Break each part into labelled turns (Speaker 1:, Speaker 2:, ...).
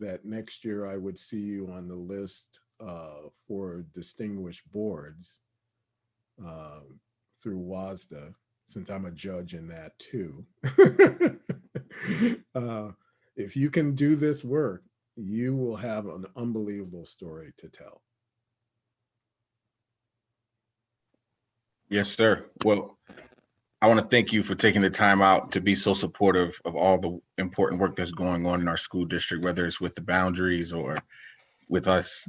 Speaker 1: that next year I would see you on the list uh, for distinguished boards um, through WASDA, since I'm a judge in that too. Uh, If you can do this work, you will have an unbelievable story to tell.
Speaker 2: Yes, sir. Well, I want to thank you for taking the time out to be so supportive of all the important work that's going on in our school district, whether it's with the boundaries or with us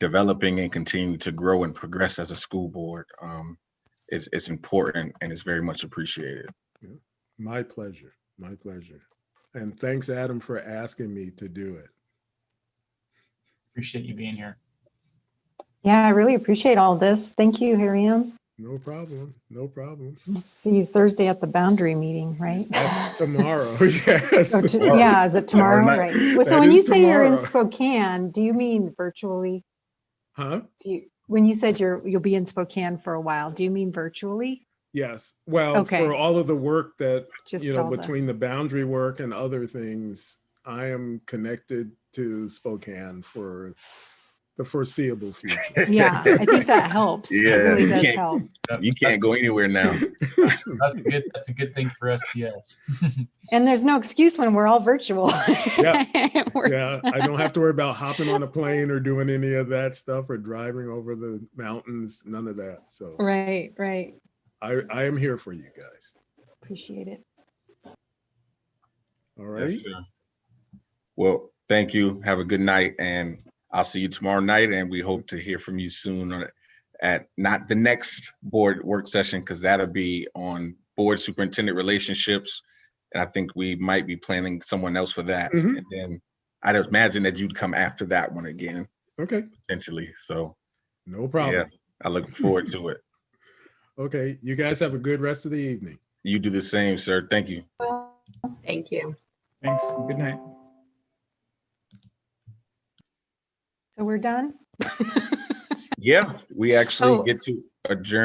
Speaker 2: developing and continuing to grow and progress as a school board. Um, it's, it's important and it's very much appreciated.
Speaker 1: My pleasure, my pleasure. And thanks, Adam, for asking me to do it.
Speaker 3: Appreciate you being here.
Speaker 4: Yeah, I really appreciate all this. Thank you, Hariam.
Speaker 1: No problem, no problem.
Speaker 4: We'll see you Thursday at the boundary meeting, right?
Speaker 1: That's tomorrow, yes.
Speaker 4: Or to-
Speaker 1: tomorrow.
Speaker 4: Yeah, is it
Speaker 2: Tomorrow
Speaker 4: tomorrow?
Speaker 2: night.
Speaker 4: Right. Well,
Speaker 1: That
Speaker 4: So when you
Speaker 1: is
Speaker 4: say you're in
Speaker 1: tomorrow.
Speaker 4: Spokane, do you mean virtually?
Speaker 1: Huh?
Speaker 4: Do you, when you said you're, you'll be in Spokane for a while, do you mean virtually?
Speaker 1: Yes, well,
Speaker 4: Okay.
Speaker 1: for all of the work that,
Speaker 4: Just
Speaker 1: you know,
Speaker 4: all the,
Speaker 1: between the boundary work and other things, I am connected to Spokane for the foreseeable future.
Speaker 4: yeah, I think that helps. It
Speaker 2: Yeah,
Speaker 4: really
Speaker 2: you
Speaker 4: does
Speaker 2: can't-
Speaker 4: help.
Speaker 2: You can't go anywhere now.
Speaker 3: That's a good, that's a good thing for SDS.
Speaker 4: And there's no excuse when we're all virtual.
Speaker 1: Yeah.
Speaker 4: It works.
Speaker 1: Yeah, I don't have to worry about hopping on a plane or doing any of that stuff or driving over the mountains, none of that. So
Speaker 4: Mm. Right, right.
Speaker 1: I, I am here for you guys.
Speaker 4: Appreciate it.
Speaker 1: All
Speaker 2: Yes,
Speaker 1: right?
Speaker 2: sir. Well, thank you. Have a good night and I'll see you tomorrow night and we hope to hear from you soon on at not the next board work session because that'll be on board superintendent relationships. And I think we might be planning someone else for that.
Speaker 1: Mhm.
Speaker 2: And then I'd imagine that you'd come after that one again
Speaker 1: Okay,
Speaker 2: potentially. So
Speaker 1: no
Speaker 2: yeah,
Speaker 1: problem.
Speaker 2: I look forward to it.
Speaker 1: Okay, you guys have a good rest of the evening.
Speaker 2: You do the same, sir. Thank you.
Speaker 4: Thank you.
Speaker 3: Thanks. Good night.
Speaker 4: So we're done?
Speaker 2: Yeah, we
Speaker 4: Oh.
Speaker 2: actually get to adjourn.